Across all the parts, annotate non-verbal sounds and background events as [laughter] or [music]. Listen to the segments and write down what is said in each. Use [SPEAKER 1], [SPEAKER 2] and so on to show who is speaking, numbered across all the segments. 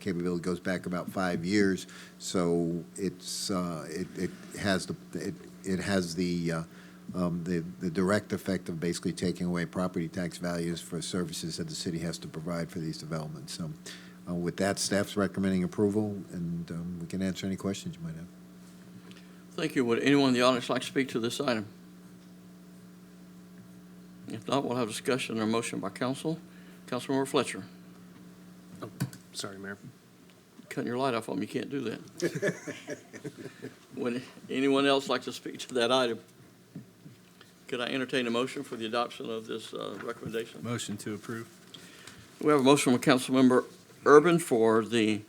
[SPEAKER 1] capability goes back about five years, so it's, uh, it, it has the, it, it has the, uh, um, the, the direct effect of basically taking away property tax values for services that the city has to provide for these developments. So, uh, with that, staff's recommending approval, and, um, we can answer any questions you might have.
[SPEAKER 2] Thank you. Would anyone in the audience like to speak to this item? If not, we'll have discussion or motion by council. Councilmember Fletcher,
[SPEAKER 3] Sorry, Mayor.
[SPEAKER 2] cutting your light off on me, you can't do that. Would anyone else like to speak to that item? Could I entertain a motion for the adoption of this uh, recommendation?
[SPEAKER 4] Motion to approve.
[SPEAKER 2] We have a motion from Councilmember Urban for the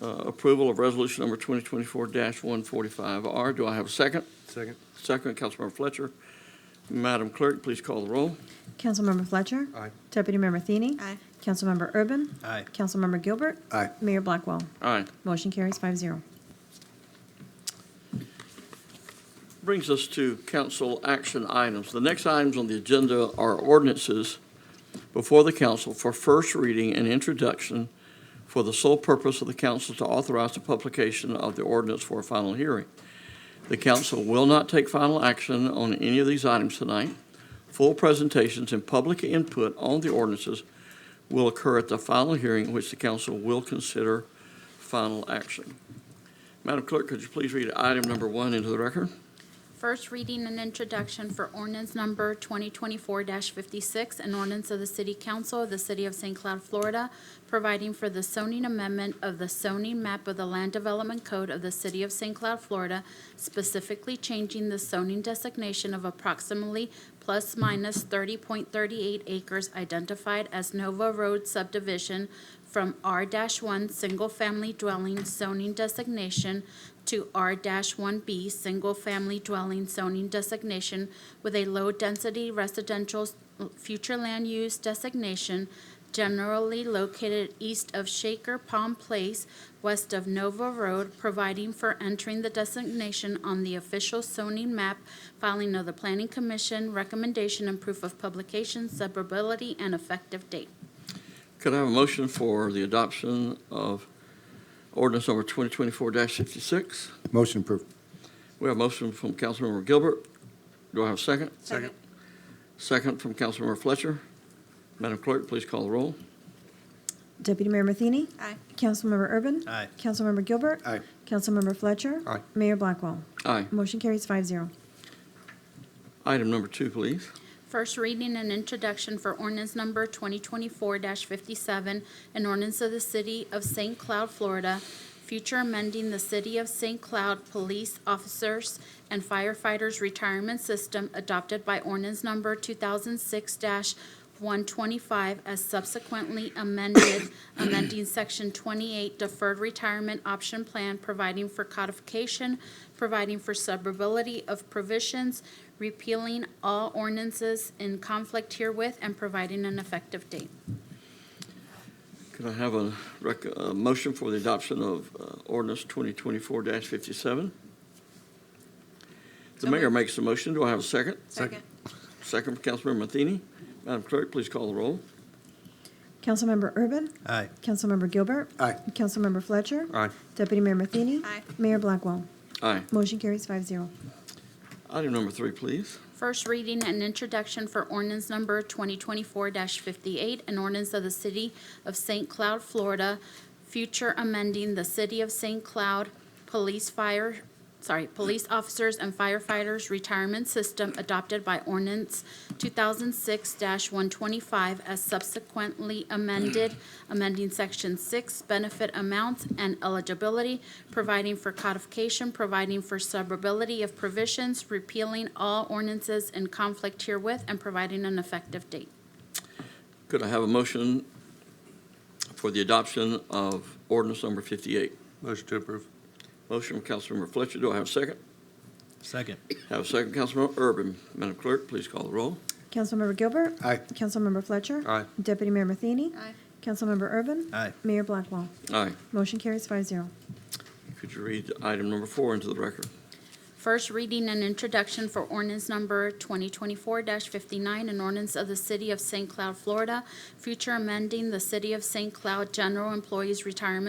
[SPEAKER 2] uh, approval of resolution number 2024-145R. Do I have a second?
[SPEAKER 3] Second.
[SPEAKER 2] Second, Councilmember Fletcher. Madam Clerk, please call the roll.
[SPEAKER 5] Councilmember Fletcher.
[SPEAKER 3] Aye.
[SPEAKER 5] Deputy Member Thiene.
[SPEAKER 6] Aye.
[SPEAKER 5] Councilmember Urban.
[SPEAKER 4] Aye.
[SPEAKER 5] Councilmember Gilbert.
[SPEAKER 1] Aye.
[SPEAKER 5] Mayor Blackwell.
[SPEAKER 2] Aye.
[SPEAKER 5] Motion carries five zero.
[SPEAKER 2] Brings us to council action items. The next items on the agenda are ordinances before the council for first reading and introduction for the sole purpose of the council to authorize the publication of the ordinance for a final hearing. The council will not take final action on any of these items tonight. Full presentations and public input on the ordinances will occur at the final hearing, which the council will consider final action. Madam Clerk, could you please read item number one into the record?
[SPEAKER 6] First reading and introduction for ordinance number 2024-56, an ordinance of the City Council of the City of St. Cloud, Florida, providing for the zoning amendment of the zoning map of the Land Development Code of the City of St. Cloud, Florida, specifically changing the zoning designation of approximately plus minus 30.38 acres identified as Nova Road subdivision from R-1 Single Family Dwelling zoning designation to R-1B Single Family Dwelling zoning designation with a low-density residential s- future land use designation generally located east of Shaker Palm Place, west of Nova Road, providing for entering the designation on the official zoning map, filing of the Planning Commission, recommendation and proof of publication, suburbility, and effective date.
[SPEAKER 2] Could I have a motion for the adoption of ordinance number 2024-66?
[SPEAKER 1] Motion approved.
[SPEAKER 2] We have a motion from Councilmember Gilbert. Do I have a second?
[SPEAKER 3] Second.
[SPEAKER 2] Second from Councilmember Fletcher. Madam Clerk, please call the roll.
[SPEAKER 5] Deputy Mayor Matheny.
[SPEAKER 6] Aye.
[SPEAKER 5] Councilmember Urban.
[SPEAKER 4] Aye.
[SPEAKER 5] Councilmember Gilbert.
[SPEAKER 1] Aye.
[SPEAKER 5] Councilmember Fletcher.
[SPEAKER 3] Aye.
[SPEAKER 5] Mayor Blackwell.
[SPEAKER 2] Aye.
[SPEAKER 5] Motion carries five zero.
[SPEAKER 2] Item number two, please.
[SPEAKER 6] First reading and introduction for ordinance number 2024-57, an ordinance of the City of St. Cloud, Florida, future amending the City of St. Cloud Police Officers and Firefighters Retirement System adopted by ordinance number 2006-125 as subsequently amended, [coughs] amending Section 28 Deferred Retirement Option Plan, providing for codification, providing for suburbility of provisions, repealing all ordinances in conflict herewith and providing an effective date.
[SPEAKER 2] Could I have a rec, a motion for the adoption of uh, ordinance 2024-57? The
[SPEAKER 6] So
[SPEAKER 2] mayor
[SPEAKER 6] moved.
[SPEAKER 2] makes the motion. Do I have a second?
[SPEAKER 3] Second.
[SPEAKER 2] Second from Councilmember Matheny. Madam Clerk, please call the roll.
[SPEAKER 5] Councilmember Urban.
[SPEAKER 4] Aye.
[SPEAKER 5] Councilmember Gilbert.
[SPEAKER 1] Aye.
[SPEAKER 5] Councilmember Fletcher.
[SPEAKER 3] Aye.
[SPEAKER 5] Deputy Mayor Matheny.
[SPEAKER 6] Aye.
[SPEAKER 5] Mayor Blackwell.
[SPEAKER 2] Aye.
[SPEAKER 5] Motion carries five zero.
[SPEAKER 2] Item number three, please.
[SPEAKER 6] First reading and introduction for ordinance number 2024-58, an ordinance of the City of St. Cloud, Florida, future amending the City of St. Cloud Police Fire, sorry, Police Officers and Firefighters Retirement System adopted by ordinance 2006-125 as subsequently amended, amending Section 6, benefit amounts and eligibility, providing for codification, providing for suburbility of provisions, repealing all ordinances in conflict herewith, and providing an effective date.
[SPEAKER 2] Could I have a motion for the adoption of ordinance number 58?
[SPEAKER 3] Motion to approve.
[SPEAKER 2] Motion from Councilmember Fletcher, do I have a second?
[SPEAKER 4] Second.
[SPEAKER 2] Have a second, Councilmember Urban. Madam Clerk, please call the roll.
[SPEAKER 5] Councilmember Gilbert.
[SPEAKER 1] Aye.
[SPEAKER 5] Councilmember Fletcher.
[SPEAKER 3] Aye.
[SPEAKER 5] Deputy Mayor Matheny.
[SPEAKER 6] Aye.
[SPEAKER 5] Councilmember Urban.
[SPEAKER 4] Aye.
[SPEAKER 5] Mayor Blackwell.
[SPEAKER 2] Aye.
[SPEAKER 5] Motion carries five zero.
[SPEAKER 2] Could you read item number four into the record?
[SPEAKER 6] First reading and introduction for ordinance number 2024-59, an ordinance of the City of St. Cloud, Florida, future amending the City of St. Cloud General Employees Retirement